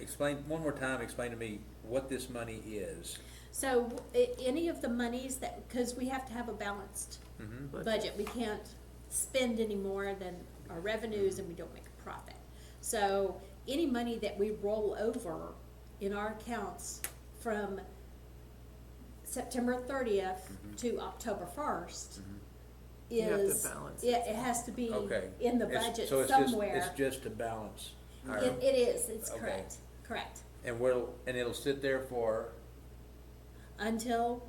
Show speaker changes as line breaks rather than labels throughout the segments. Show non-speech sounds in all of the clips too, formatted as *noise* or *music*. explain, one more time, explain to me what this money is.
So i- any of the monies that, because we have to have a balanced
Mhm.
budget, we can't spend any more than our revenues and we don't make a profit. So any money that we roll over in our accounts from September thirtieth
Mhm.
to October first
Mhm.
You have to
is,
balance
it, it has to be
Okay.
in the
It's-
budget
so it's just-
somewhere.
It's just to balance. our-
It, it is, it's
Okay.
correct, correct,
And we'll, and it'll sit there for,
until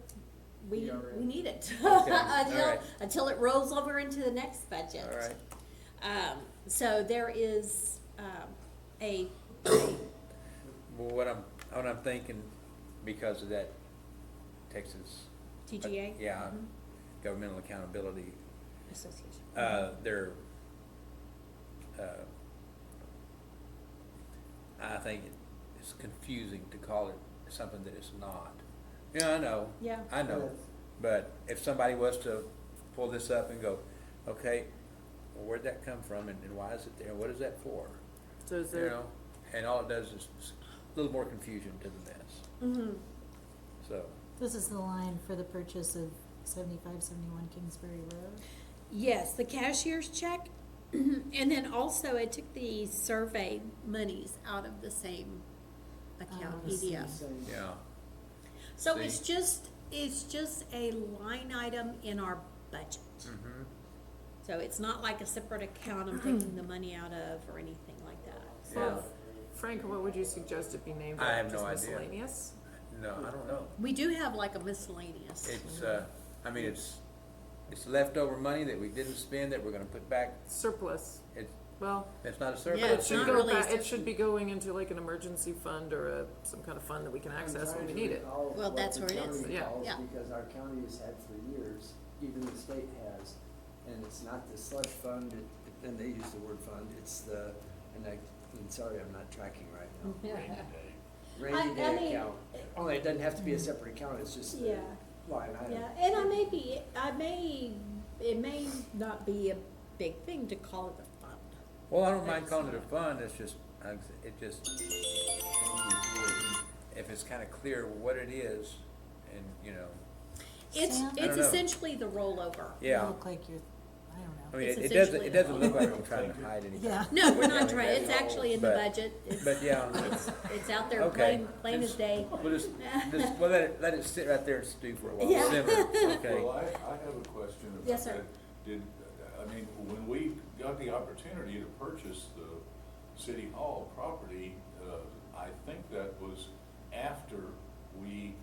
we,
ERA.
we need it. *laughs*
Okay,
Until,
alright.
until it rolls over into the next budget.
all right,
Um, so there is, um, a, a-
well, what I'm, what I'm thinking, because of that Texas. uh,
TGA?
Yeah,
Mhm.
governmental accountability
association.
uh, their, uh, I think it's confusing to call it something that it's not. Yeah, I know.
Yeah.
I know,
Yes.
but if somebody was to pull this up and go, okay, where'd that come from and, and why is it there, and what is that for?
So is
You
there,
know, and all it does is s- a little more confusion to the mess,
Mm-hmm,
so.
This is the line for the purchase of seventy-five, seventy-one Kingsbury Road.
yes, the cashier's check, *clears throat* and then also I took the survey monies out of the same account,
Oh, I see.
EDF.
Same.
Yeah.
So
See?
it's just, it's just a line item in our budget.
Mm-hmm.
So it's not like a separate account I'm taking the money out of or anything like that.
Yeah.
So
Frank, what would you suggest it be named?
I have
after?
no idea.
Just miscellaneous?
No, I don't know.
we do have like a miscellaneous.
It's, uh, I mean, it's, it's leftover money that we didn't spend that we're gonna put back,
Surplus,
it,
well,
it's not a
Yeah,
it
surplus
it's
should
not
go
either.
really
back, it
essential.
should be going into like an emergency fund or a, some kind of fund that we can
I'm
access when
trying
we
to
need it.
recall
Well,
what
that's
the
where it is.
county
Yeah.
calls,
Yeah.
Because our county has had for years, even the state has, and it's not the slush fund, it- and they use the word fund, it's the, and I, and sorry, I'm not tracking right now.
I-
Rainy
Mm-hmm. I
day
mean-
account, only it doesn't have to be a separate account, it's just the
Yeah.
line item.
Yeah, and I may be, I may, it may not be a big thing to call it a fund.
Well, I don't mind calling it a fund, it's just, I- it just, if it's kinda clear what it is, and, you know,
It's,
Sam?
I
it's
don't know.
essentially the rollover.
yeah.
Look like you're, I don't know.
I mean,
It's
it it doesn't,
essentially
it
a
doesn't look like
fund.
I'm trying to hide anything.
Yeah.
No, we're
Yeah,
not
yeah,
trying, it's
yeah.
actually in the
But-
budget. It's-
But, yeah.
It's, it's out there
Okay.
plain, plain as
Just-
day.
We'll just, just, we'll let it, let it sit right there and stew for a
Yeah.
while, simmer, okay?
*laughs*
Well, I, I have a question about that.
Yes, sir.
Did, I mean, when we got the opportunity to purchase the city hall property, uh, I think that was after we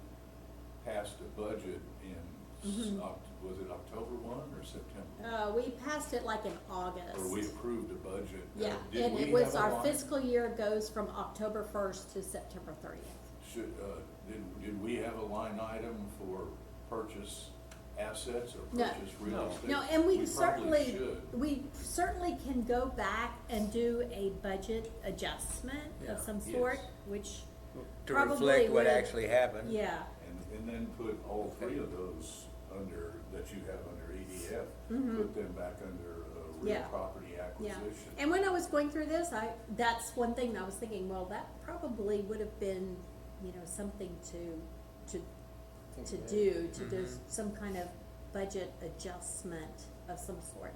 passed a budget in, s-
Mhm.
Oct- was it October one or September?
Uh, we passed it like in
Or we
August.
approved a budget. Uh,
Yeah,
did
and it
we
was
have a
our
line-
fiscal year goes from October first to September thirtieth.
Should, uh, did, did we have a line item for purchase assets or
No.
purchase real estate?
No, and we
probably
certainly,
should.
we certainly can go back and do a budget adjustment
Yeah.
of some sort,
Yes.
which,
To
Probably
reflect what
would-
actually happened.
yeah,
And, and then put all three of those under, that you have under EDF,
Mhm.
put them back under, uh, real
Yeah.
property
yeah.
acquisition.
And when I was going through this, I, that's one thing I was thinking, well, that probably would have been, you know, something to, to to do, to do
Mhm.
some kind of budget adjustment of some sort.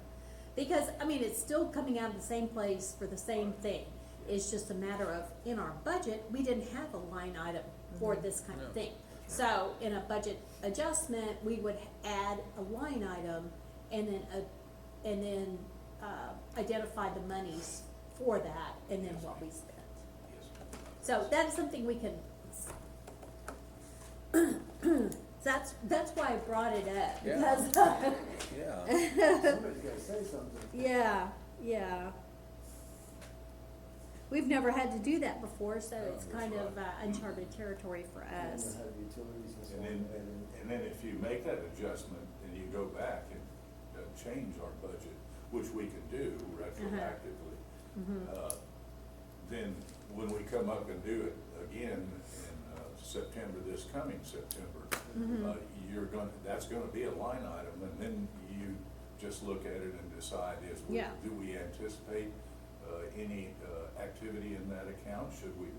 Because, I mean, it's still coming out of the same place for the same thing. It's just a matter of, in our budget, we didn't have a line item for this kind of
No.
thing. So in a budget adjustment, we would add a line item and then, a- and then, uh, identify the monies for that and then what we spent.
Yes.
So that's something we can. *clears throat* That's, that's why I brought it up,
Yeah.
because, *laughs*
Yeah,
Somebody's gotta say something.
yeah, yeah. We've never had to do that before, so
No,
it's
that's
kind of uh,
right.
uncharted territory for
And
us.
you'll have utilities and so
And
on,
then,
and
and then if you make that adjustment, then you go back and, uh, change our budget, which we can do retroactively. Uh, Then, when we come up and do it again in, uh, September, this coming September, uh, you're gonna, that's gonna be a line item, and then you just look at it and decide is,
Yeah.
do we anticipate, uh, any, uh, activity in that account? Should we